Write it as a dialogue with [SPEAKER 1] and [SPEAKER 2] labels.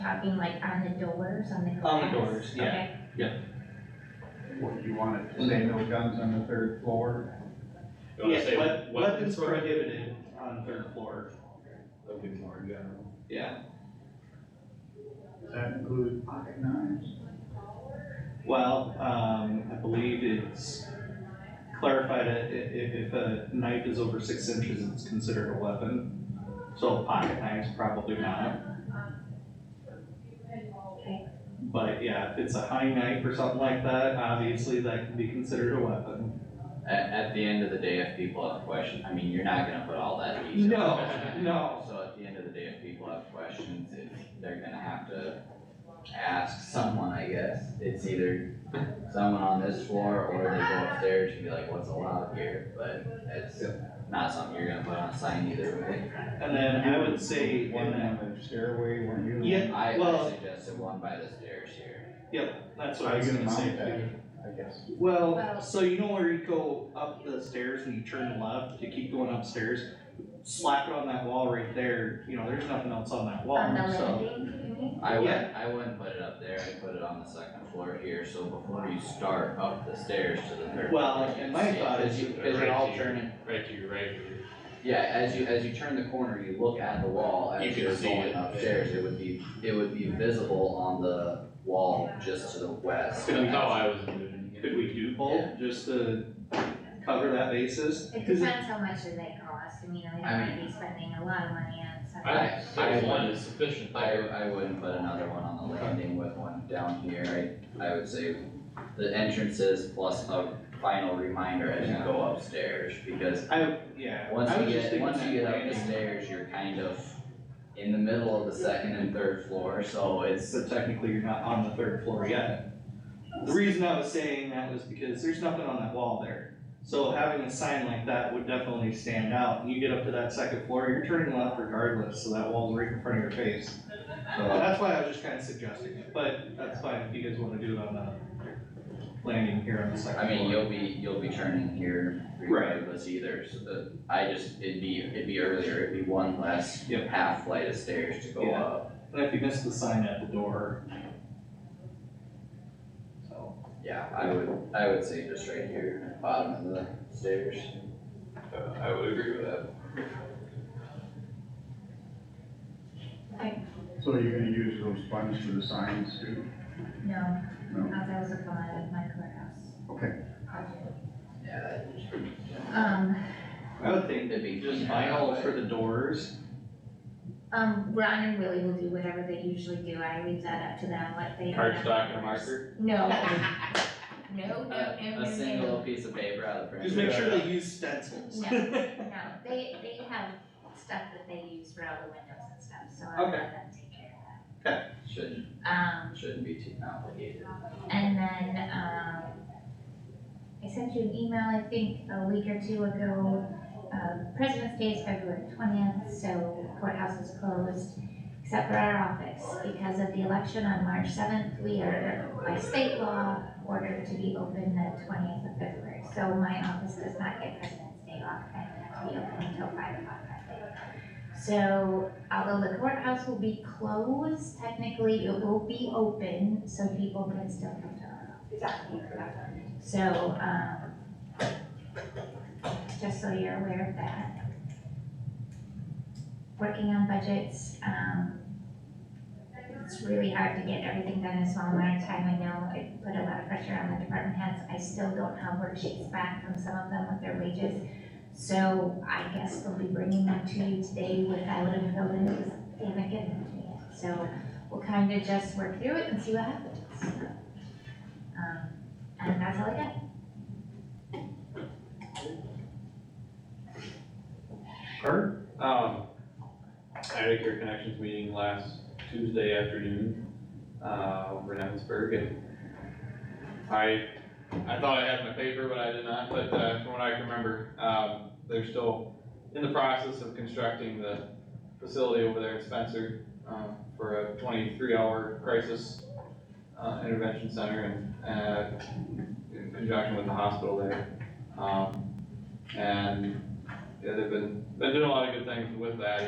[SPEAKER 1] talking like on the doors, on the glass?
[SPEAKER 2] On the doors, yeah.
[SPEAKER 1] Okay.
[SPEAKER 3] What, you want it to say no guns on the third floor?
[SPEAKER 4] You wanna
[SPEAKER 2] Yeah,
[SPEAKER 4] say
[SPEAKER 2] wep-
[SPEAKER 4] what-
[SPEAKER 2] Weapons prohibited on third floor,
[SPEAKER 4] That'd be more general.
[SPEAKER 2] yeah.
[SPEAKER 3] Does that include pocket knives?
[SPEAKER 2] Well, um, I believe it's clarified that i- if, if a knife is over six inches, it's considered a weapon. So pocket knives probably not. But yeah, if it's a high knife or something like that, obviously that can be considered a weapon.
[SPEAKER 5] At, at the end of the day, if people have questions, I mean, you're not gonna put all that detail.
[SPEAKER 2] No, no.
[SPEAKER 5] So at the end of the day, if people have questions, if they're gonna have to ask someone, I guess, it's either someone on this floor or they go upstairs and be like, what's allowed here, but it's not something you're gonna put on a sign either way.
[SPEAKER 2] And then I would say in
[SPEAKER 3] One
[SPEAKER 2] that,
[SPEAKER 3] on the stairway, one you.
[SPEAKER 2] Yeah.
[SPEAKER 5] I,
[SPEAKER 2] Well-
[SPEAKER 5] I suggested one by the stairs here.
[SPEAKER 2] that's what I was gonna say too.
[SPEAKER 3] I guess.
[SPEAKER 2] Well,
[SPEAKER 1] Well-
[SPEAKER 2] so you know where you go up the stairs and you turn left, you keep going upstairs, slap it on that wall right there, you know, there's nothing else on that wall,
[SPEAKER 1] On the
[SPEAKER 2] so.
[SPEAKER 1] landing, you mean?
[SPEAKER 5] I wouldn't, I wouldn't put it up there, I'd put it on the second floor here, so before you start up the stairs to the third.
[SPEAKER 2] Well,
[SPEAKER 5] floor, you
[SPEAKER 2] and
[SPEAKER 5] can
[SPEAKER 2] my
[SPEAKER 5] see it,
[SPEAKER 2] thought
[SPEAKER 5] Cause
[SPEAKER 2] is
[SPEAKER 5] you,
[SPEAKER 2] you-
[SPEAKER 5] cause you're all
[SPEAKER 4] right here.
[SPEAKER 5] turning
[SPEAKER 4] Right to your right here.
[SPEAKER 5] Yeah, as you, as you turn the corner, you look at the wall
[SPEAKER 4] You
[SPEAKER 5] as
[SPEAKER 4] can
[SPEAKER 5] you're
[SPEAKER 4] see
[SPEAKER 5] going
[SPEAKER 4] it.
[SPEAKER 5] upstairs, it would be, it would be visible on the wall just to the west.
[SPEAKER 4] That's how I was doing it.
[SPEAKER 2] Could we do both, just to cover that basis?
[SPEAKER 1] It
[SPEAKER 2] 'Cause
[SPEAKER 1] depends how much does that cost, I mean, I
[SPEAKER 5] I
[SPEAKER 1] might be spending a lot of money on something.
[SPEAKER 4] I, I one is sufficient
[SPEAKER 5] I,
[SPEAKER 4] there.
[SPEAKER 5] I wouldn't put another one on the landing with one down here, I, I would say the entrances plus a final reminder as you go upstairs, because
[SPEAKER 2] I, yeah.
[SPEAKER 5] once
[SPEAKER 2] I
[SPEAKER 5] you
[SPEAKER 2] was just
[SPEAKER 5] get,
[SPEAKER 2] thinking
[SPEAKER 5] once
[SPEAKER 2] that
[SPEAKER 5] you get up the
[SPEAKER 2] landing,
[SPEAKER 5] stairs, you're kind of in the middle of the second and third floor, so it's,
[SPEAKER 2] But technically, you're not on the third floor yet. The reason I was saying that was because there's nothing on that wall there. So having a sign like that would definitely stand out, and you get up to that second floor, you're turning left regardless, so that wall's right in front of your face. Well,
[SPEAKER 5] so
[SPEAKER 2] That's why I was just kinda suggesting it, but that's fine if you guys wanna do it on the landing here on the second
[SPEAKER 5] I
[SPEAKER 2] floor.
[SPEAKER 5] mean, you'll be, you'll be turning here regardless either, so the, I just, it'd be, it'd be earlier, it'd be one less
[SPEAKER 2] Yep.
[SPEAKER 5] half flight of stairs to go
[SPEAKER 2] Yeah.
[SPEAKER 5] up.
[SPEAKER 2] And if you miss the sign at the door. So,
[SPEAKER 5] Yeah, I would, I would say just right here, bottom of the stairs. I would agree with that.
[SPEAKER 3] So you're gonna use those funds for the signs too?
[SPEAKER 1] No,
[SPEAKER 3] No,
[SPEAKER 1] not that was a lot of my courthouse
[SPEAKER 3] okay.
[SPEAKER 1] project.
[SPEAKER 5] Yeah, that'd just be-
[SPEAKER 1] Um,
[SPEAKER 2] I would think
[SPEAKER 5] it'd be
[SPEAKER 2] just
[SPEAKER 5] cleaner that
[SPEAKER 2] vinyl
[SPEAKER 5] way.
[SPEAKER 2] for the doors,
[SPEAKER 1] um, Ron and Willie will do whatever they usually do, I leave that up to them, what they.
[SPEAKER 4] Cardstock and marker.
[SPEAKER 1] No. No, no,
[SPEAKER 5] A,
[SPEAKER 1] no, no,
[SPEAKER 5] a single
[SPEAKER 1] no,
[SPEAKER 5] piece of paper out of the
[SPEAKER 2] just
[SPEAKER 5] printer.
[SPEAKER 2] make sure they use stencils.
[SPEAKER 1] No. no, they, they have stuff that they use for all the windows and stuff, so I'll
[SPEAKER 2] Okay.
[SPEAKER 1] let them take care of
[SPEAKER 5] Shouldn't,
[SPEAKER 1] that. Um,
[SPEAKER 5] shouldn't be too complicated.
[SPEAKER 1] And then, um, I sent you an email, I think, a week or two ago. Uh, President's Day is February twentieth, so courthouse is closed, except for our office. Because of the election on March seventh, we are, by state law, ordered to be open the twentieth of February. So my office does not get President's Day off, and we have to be open until five o'clock that day. So although uh, the courthouse will be closed, technically it will be open, so people can still come to our office. So, um, just so you're aware of that. Working on budgets, um, it's really hard to get everything done in a small amount of time, I know it put a lot of pressure on the department heads. I still don't have worksheets back from some of them with their wages. So I guess we'll be bringing them to you today without a building, because they haven't given them to me yet. So we'll kind of just work through it and see what happens. Um, and that's all I got.
[SPEAKER 4] Kurt, um, I had a Care Connections meeting last Tuesday afternoon, uh, over in Evansburg, and I, I thought I had my paper, but I did not, but, uh, from what I can remember, um, they're still in the process of constructing the facility over there in Spencer, um, for a twenty-three hour crisis, uh, intervention center and, uh, in conjunction with the hospital there. Um, and yeah, they've been, been doing a lot of good things with that,